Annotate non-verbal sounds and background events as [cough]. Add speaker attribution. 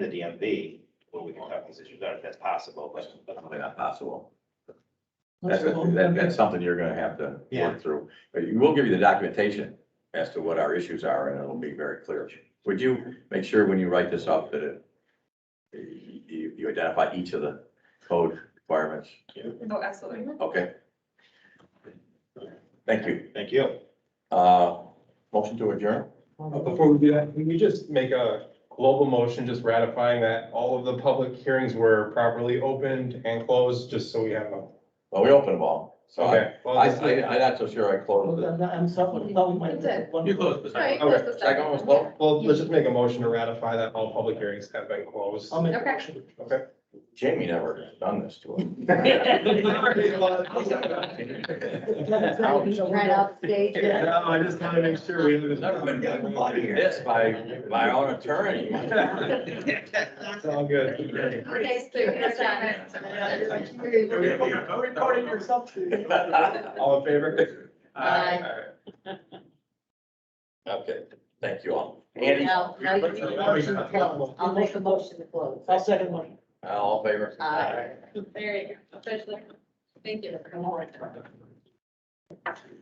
Speaker 1: the DMV, where we can talk these issues out if that's possible, but.
Speaker 2: That's probably not possible. That's, that- that's something you're gonna have to
Speaker 1: Yeah.
Speaker 2: work through. But you- we'll give you the documentation as to what our issues are, and it'll be very clear. Would you make sure when you write this up that it, you, you identify each of the code requirements?
Speaker 3: Oh, absolutely.
Speaker 2: Okay. Thank you.
Speaker 1: Thank you.
Speaker 2: Uh, motion to adjourn?
Speaker 4: Uh, Before we do that, can we just make a global motion, just ratifying that all of the public hearings were properly opened and closed, just so we have a.
Speaker 2: Well, we opened them all. So I,
Speaker 4: Okay. well,
Speaker 2: I,
Speaker 4: this is-
Speaker 2: I- I'm not so sure I closed it.
Speaker 5: I'm sorry, that was my-
Speaker 3: You did.
Speaker 5: one-
Speaker 2: You closed the
Speaker 3: Right,
Speaker 2: second.
Speaker 3: close the
Speaker 2: Okay, second one was closed.
Speaker 4: Well, let's just make a motion to ratify that all public hearings have been closed.
Speaker 5: I'll make a
Speaker 3: Okay.
Speaker 5: motion.
Speaker 4: Okay.
Speaker 2: Jamie never done this [laughs] to him.
Speaker 4: [laughs]
Speaker 2: [laughs]
Speaker 6: Right off stage.
Speaker 4: No, I just want to make sure we.
Speaker 2: Never been gotten This by my own attorney.
Speaker 4: [laughs]
Speaker 2: [laughs]
Speaker 4: It's all good.
Speaker 3: Okay, so here's that.
Speaker 5: You Recorded
Speaker 2: [laughs]
Speaker 5: yourself too.
Speaker 4: All in favor?
Speaker 6: Aye.
Speaker 4: All right.
Speaker 2: Okay, thank you all. Andy,
Speaker 6: Now, now you need a motion to close. I'll make a motion to close.
Speaker 5: I'll second one.
Speaker 2: all in favor?
Speaker 6: Aye.
Speaker 3: There you go, officially. Thank you.